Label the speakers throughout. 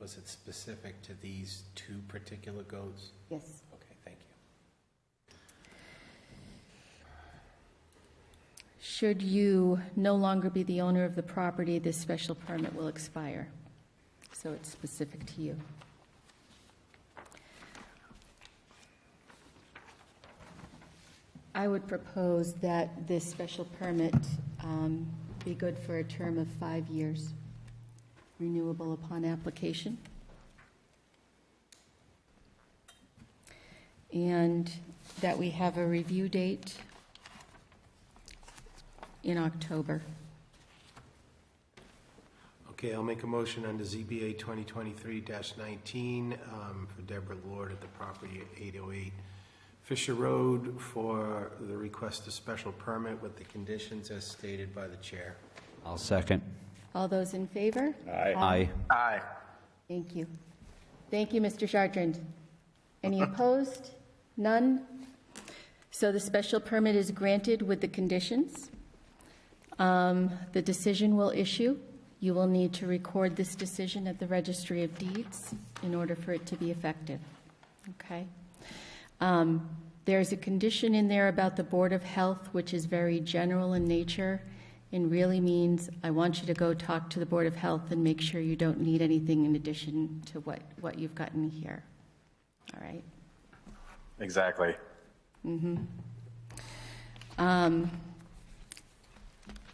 Speaker 1: Was it specific to these two particular goats?
Speaker 2: Yes.
Speaker 1: Okay, thank you.
Speaker 2: Should you no longer be the owner of the property, this special permit will expire. So it's specific to you. I would propose that this special permit um, be good for a term of five years, renewable upon application. And that we have a review date in October.
Speaker 1: Okay, I'll make a motion under ZBA 2023-19 um, for Deborah Lord at the property at 808 Fisher Road for the request of special permit with the conditions as stated by the chair.
Speaker 3: I'll second.
Speaker 2: All those in favor?
Speaker 3: Aye.
Speaker 1: Aye.
Speaker 2: Thank you. Thank you, Mr. Chartrand. Any opposed? None? So the special permit is granted with the conditions. Um, The decision will issue. You will need to record this decision at the Registry of Deeds in order for it to be effective. Okay? Um, There's a condition in there about the Board of Health, which is very general in nature and really means, I want you to go talk to the Board of Health and make sure you don't need anything in addition to what, what you've gotten here. All right?
Speaker 4: Exactly.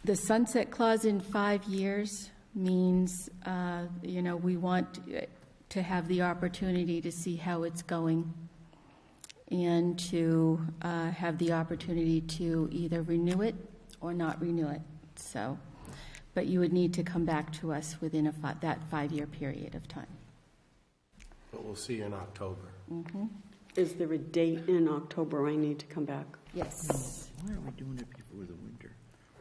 Speaker 2: The sunset clause in five years means, uh, you know, we want uh, to have the opportunity to see how it's going and to uh, have the opportunity to either renew it or not renew it, so. But you would need to come back to us within a, fi- that five-year period of time.
Speaker 1: But we'll see you in October.
Speaker 5: Is there a date in October I need to come back?
Speaker 2: Yes.
Speaker 6: Why are we doing it before the winter?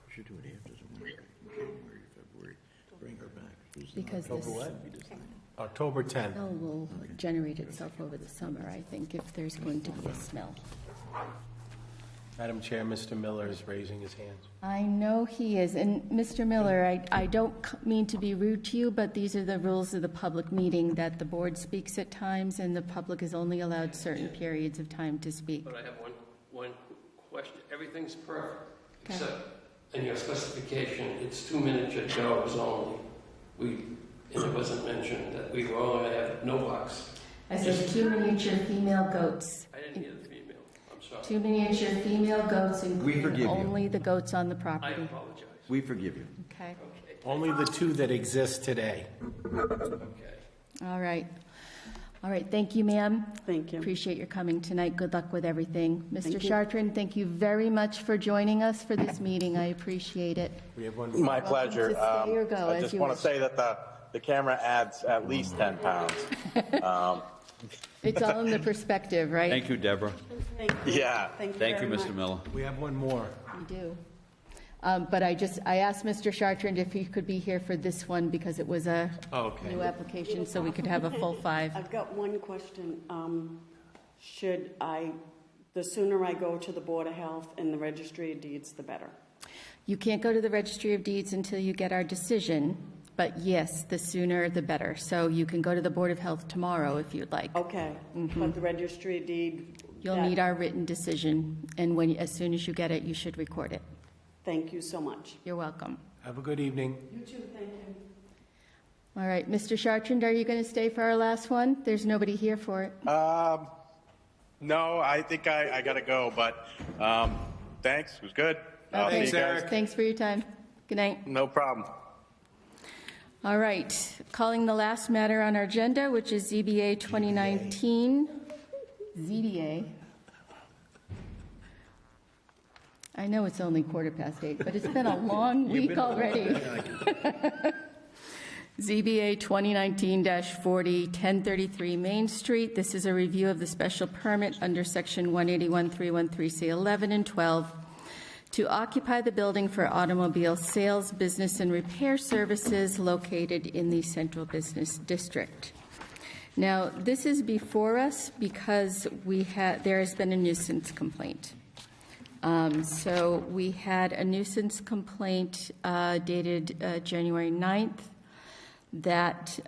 Speaker 6: We should do it after the winter, in January, February, bring her back. It's not
Speaker 2: Because
Speaker 6: October,
Speaker 2: this-
Speaker 6: we just think.
Speaker 1: October 10th.
Speaker 2: Smell will generate itself over the summer, I think, if there's going to be a smell.
Speaker 1: Madam Chair, Mr. Miller is raising his hand.
Speaker 2: I know he is, and Mr. Miller, I, I don't c- mean to be rude to you, but these are the rules of the public meeting, that the board speaks at times, and the public is only allowed certain periods of time to speak.
Speaker 7: But I have one, one question. Everything's perfect, except in your specification, it's two miniature dogs only. We, and it wasn't mentioned that we were only gonna have no bucks.
Speaker 2: I said two miniature female goats,
Speaker 7: I didn't hear the female, I'm sorry.
Speaker 2: two miniature female goats,
Speaker 6: forgive
Speaker 2: including
Speaker 6: you.
Speaker 2: only the goats on the
Speaker 7: I
Speaker 2: property.
Speaker 7: apologize.
Speaker 6: We forgive you.
Speaker 2: Okay,
Speaker 1: Only the two that exist today.
Speaker 7: Okay.
Speaker 2: all right. All right, thank you, ma'am.
Speaker 5: Thank you.
Speaker 2: Appreciate your coming tonight. Good luck with everything. Mr.
Speaker 5: Thank you.
Speaker 2: Chartrand, thank you very much for joining us for this meeting. I appreciate it.
Speaker 1: We have one.
Speaker 4: My
Speaker 2: Welcome
Speaker 4: pleasure.
Speaker 2: to stay
Speaker 4: Um,
Speaker 2: or go,
Speaker 4: I
Speaker 2: as
Speaker 4: just
Speaker 2: you
Speaker 4: want
Speaker 2: wish. Mm-hmm.
Speaker 4: to say that the, the camera adds at least 10 pounds.
Speaker 2: It's all in the perspective, right?
Speaker 3: Thank you, Deborora.
Speaker 4: Yeah.
Speaker 3: Thank you,
Speaker 5: very
Speaker 3: Mr.
Speaker 5: much.
Speaker 3: Miller.
Speaker 1: We have one more.
Speaker 2: We do. Um, But I just, I asked Mr. Chartrand if he could be here for this one because it was a
Speaker 1: Okay.
Speaker 2: new application, so we could have a full five.
Speaker 5: I've got one question. Um, Should I, the sooner I go to the Board of Health and the Registry of Deeds, the better?
Speaker 2: You can't go to the Registry of Deeds until you get our decision, but yes, the sooner the better. So you can go to the Board of Health tomorrow if you'd like.
Speaker 5: Okay, but the Registry of Deed?
Speaker 2: Mm-hmm. You'll
Speaker 5: that-
Speaker 2: need our written decision, and when, as soon as you get it, you should record it.
Speaker 5: Thank you so much.
Speaker 2: You're welcome.
Speaker 1: Have a good evening.
Speaker 5: You too, thank you.
Speaker 2: All right, Mr. Chartrand, are you going to stay for our last one? There's nobody here for it.
Speaker 4: Um, no, I think I, I got to go, but um, thanks. It was good. I'll see you
Speaker 2: Okay.
Speaker 1: Thanks,
Speaker 4: guys.
Speaker 1: Eric.
Speaker 2: Thanks for your time. Good night.
Speaker 4: No problem.
Speaker 2: All right, calling the last matter on our agenda, which is ZBA 2019. ZBA. I know it's only quarter past eight, but it's been a long week already. ZBA 2019-40, 1033 Main Street. This is a review of the special permit under Section 181.313C11 and 12 to occupy the building for automobile sales, business, and repair services located in the Central Business District. Now, this is before us because we had, there has been a nuisance complaint. Um, So we had a nuisance complaint uh, dated uh, January 9th that